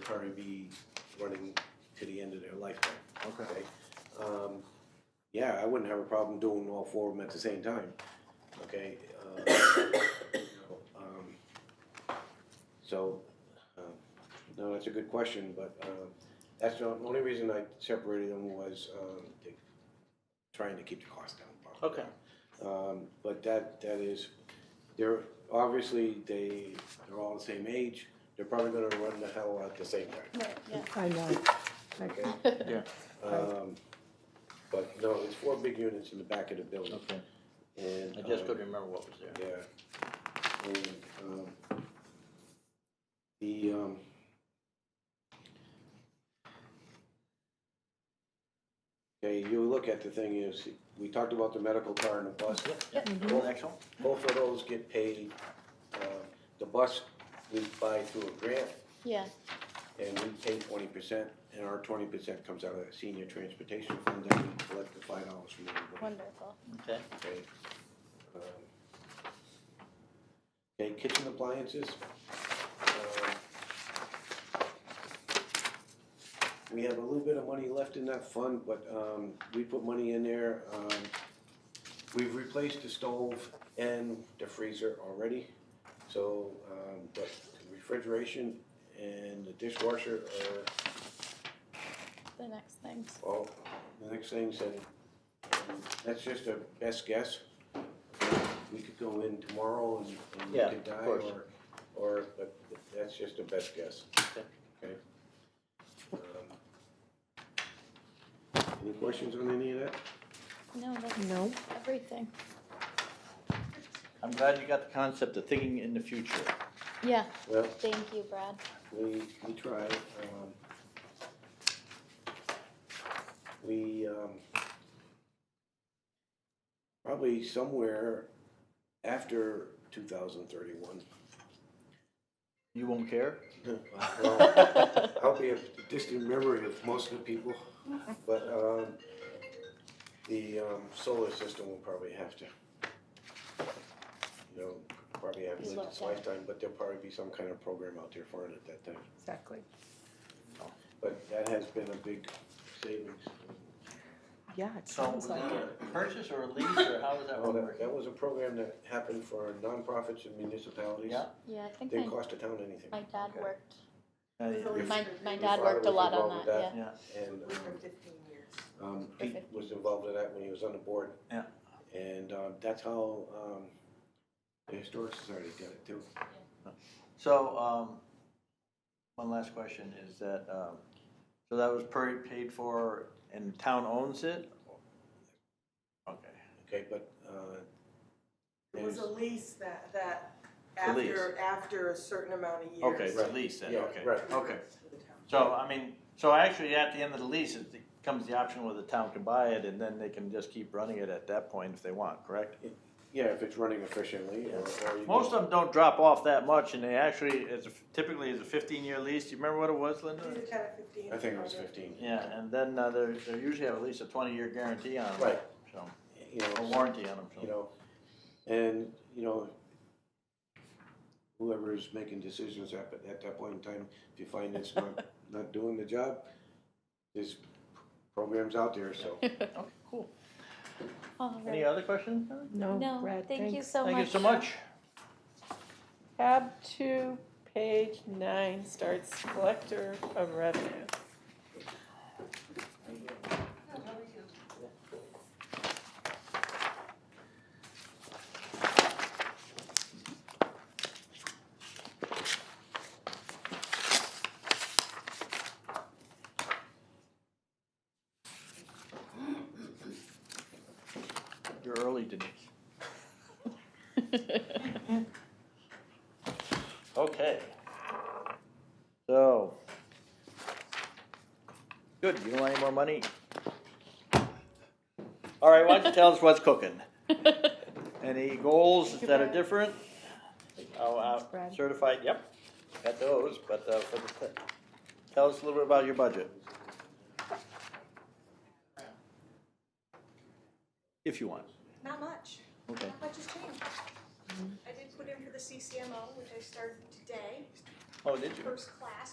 probably be running to the end of their lifetime. Okay. Um, yeah, I wouldn't have a problem doing all four of them at the same time, okay? Uh, um, So, um, no, that's a good question, but, um, that's the only reason I separated them was, um, to- trying to keep the cost down. Okay. Um, but that, that is, they're, obviously, they, they're all the same age, they're probably gonna run the hell out at the same time. Right, yeah. I know. Okay. Yeah. Um, but no, it's four big units in the back of the building. Okay, And, I just um, couldn't remember what was there. yeah. And, um, the, um, okay, you look at the thing is, we talked about the medical car and the bus. Yep, Mhm. next one. Both of those get paid. Uh, the bus, we buy through a grant Yeah, and we pay twenty percent, and our twenty percent comes out of the senior transportation fund that we collect the five dollars from everybody. wonderful. Okay, Okay. Um, Okay, kitchen appliances. Uh, We have a little bit of money left in that fund, but, um, we put money in there, um, we've replaced the stove and the freezer already. So, um, but the refrigeration and the dishwasher are The next things. well, the next thing said, that's just a best guess. We could go in tomorrow and, and we Yeah, could of die, course. or, or, but that's just a best guess. Okay. Okay? Um, Any questions on any of that? No, that's No, everything. I'm glad you got the concept of thinking in the future. Yeah, Well, thank you, Brad. we, we tried, um. We, um. Probably somewhere after two thousand thirty-one. You won't care? Well, I'll be a distant memory of most of the people, but, um, the, um, solar system will probably have to, you know, probably have lived its lifetime, but there'll probably be some kind of program out there for it at that time. exactly. But that has been a big savings. Yeah, it So was sounds that like it. a purchase or a lease or how was that Oh, that, working? that was a program that happened for nonprofits and municipalities. Yeah. Yeah, I think Didn't my, cost the town anything. my dad Okay. worked, Uh, Your- my, my your dad father worked a was lot on involved with that, Yeah, And, For um, fifteen years. um, For Pete was involved in that when he was on the board. Yeah. And, um, that's how, um, the Historic Society did it too. so, um, one last question is that, um, so that was per, paid for and the town owns it? Okay, Okay, but, uh, It was a lease that, that A lease. after, after a certain amount of years. okay, it's a Right. lease then, Yeah, okay. right. Okay, To the town. so I mean, so actually at the end of the lease, it comes the option where the town can buy it and then they can just keep running it at that point if they want, correct? yeah, if it's running efficiently or, or you. Most go- of them don't drop off that much, and they actually, it's a- typically is a fifteen-year lease. Do you remember what it was, It Linda? was a ten or fifteen. I think it was fifteen, Yeah, and then uh, they they usually have at least a twenty-year guarantee on them. Right. So, you know. a so- warranty on them. you So. know, and, you know, whoever is making decisions at, at that point in time, if you find it's not, not doing the job, there's programs out there, so. Okay, cool. All Any right. other questions? Heather? No, No, Brad, thank you thanks. so much. Thank you so much. Tab two, page nine starts collector of revenue. You're early, Denise. Okay. So. Good, you don't want any more money? All right, why don't you tell us what's cooking? Any goals that are different? Oh, uh, Brad. certified, yep, got those, but, uh, for the, te- tell us a little bit about your budget. If you want, Not much, okay. not much has changed. I did put in for the CCMO, which I started today, Oh, did you? first class,